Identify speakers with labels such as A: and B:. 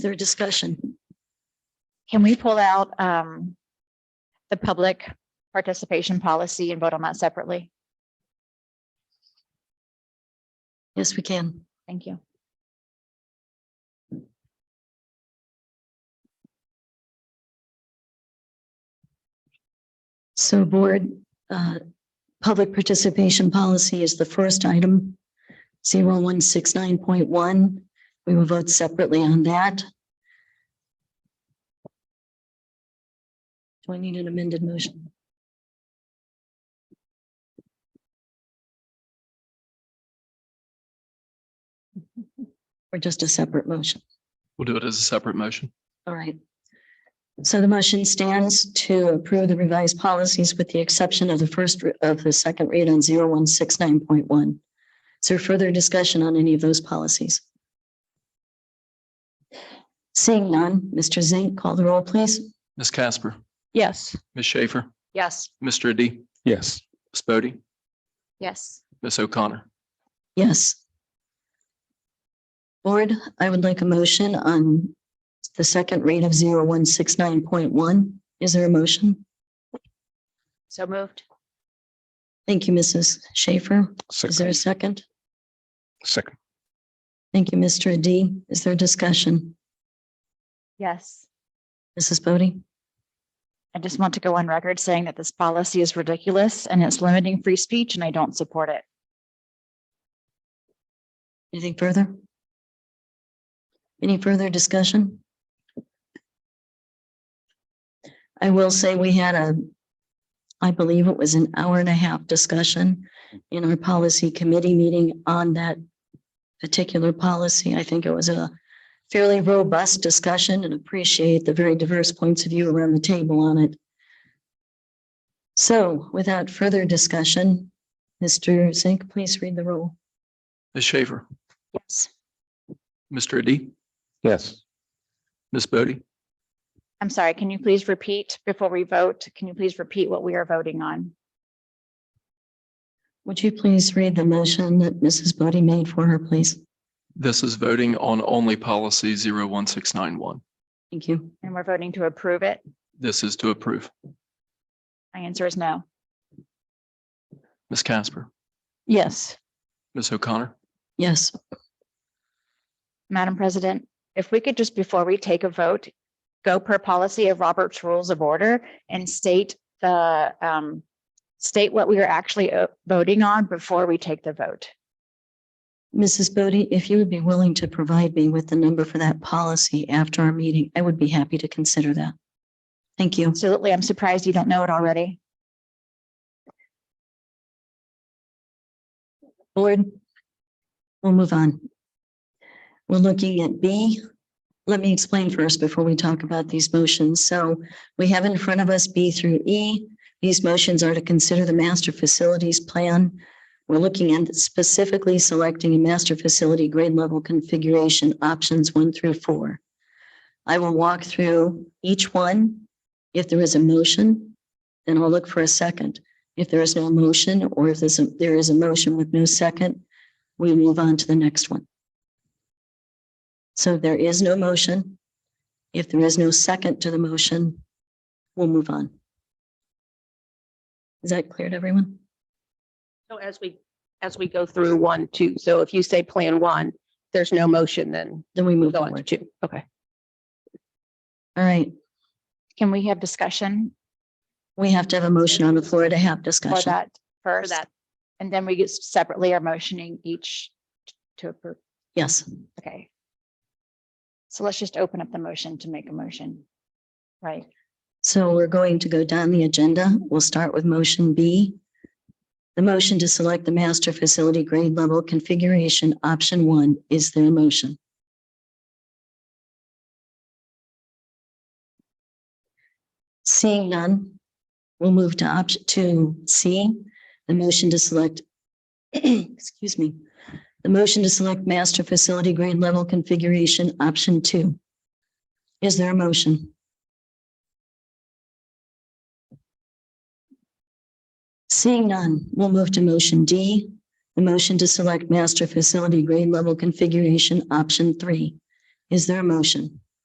A: their discussion.
B: Can we pull out um the public participation policy and vote on that separately?
A: Yes, we can.
B: Thank you.
A: So board, uh, public participation policy is the first item. 0169.1. We will vote separately on that. Do I need an amended motion? Or just a separate motion?
C: We'll do it as a separate motion.
A: All right. So the motion stands to approve the revised policies with the exception of the first, re- of the second read on 0169.1. Is there further discussion on any of those policies? Seeing none, Mr. Zink, call the roll, please.
C: Ms. Casper,
B: Yes.
C: Ms. Schaefer,
B: Yes.
C: Mr. Adi,
D: Yes.
C: Ms. Bodie,
B: Yes.
C: Ms. O'Connor.
A: Yes. Board, I would like a motion on the second read of 0169.1. Is there a motion?
B: So moved.
A: Thank you, Mrs. Schaefer. Is there a
D: Second.
A: second?
D: Second.
A: Thank you, Mr. Adi. Is there discussion?
B: Yes.
A: Mrs. Bodie?
B: I just want to go on record saying that this policy is ridiculous and it's limiting free speech and I don't support it.
A: Anything further? Any further discussion? I will say we had a, I believe it was an hour and a half discussion in our policy committee meeting on that particular policy. I think it was a fairly robust discussion and appreciate the very diverse points of view around the table on it. So without further discussion, Mr. Zink, please read the roll.
C: Ms. Schaefer,
B: Yes.
C: Mr. Adi,
D: Yes.
C: Ms. Bodie,
B: I'm sorry, can you please repeat before we vote? Can you please repeat what we are voting on?
A: Would you please read the motion that Mrs. Bodie made for her, please?
C: this is voting on only policy 01691.
A: Thank you.
B: And we're voting to approve it?
C: This is to approve.
B: My answer is no.
C: Ms. Casper,
B: Yes.
C: Ms. O'Connor,
A: Yes,
B: Madam President, if we could just, before we take a vote, go per policy of Robert's Rules of Order and state the, um, state what we are actually uh, voting on before we take the vote.
A: Mrs. Bodie, if you would be willing to provide me with the number for that policy after our meeting, I would be happy to consider that. Thank you.
B: Absolutely. I'm surprised you don't know it already.
A: Board, we'll move on. We're looking at B. Let me explain first before we talk about these motions. So we have in front of us B through E. These motions are to consider the master facilities plan. We're looking at specifically selecting a master facility grade level configuration options one through four. I will walk through each one. If there is a motion, then I'll look for a second. If there is no motion, or if there's, a- there is a motion with no second, we move on to the next one. So there is no motion. If there is no second to the motion, we'll move on. Is that clear to everyone?
E: So as we, as we go through one, two, so if you say plan one, there's no motion, then
A: Then we move
E: go on to
A: forward.
E: two. Okay.
A: All right,
B: Can we have discussion
A: we have to have a motion on the floor to have
B: for
A: discussion.
B: that first?
E: that.
B: And then we get separately are motioning each to approve.
A: Yes,
B: Okay. So let's just open up the motion to make a motion. Right?
A: so we're going to go down the agenda. We'll start with motion B. The motion to select the master facility grade level configuration, option one, is there a motion? Seeing none, we'll move to option to C, the motion to select, excuse me, the motion to select master facility grade level configuration, option two. Is there a motion? Seeing none, we'll move to motion D, the motion to select master facility grade level configuration, option three. Is there a motion?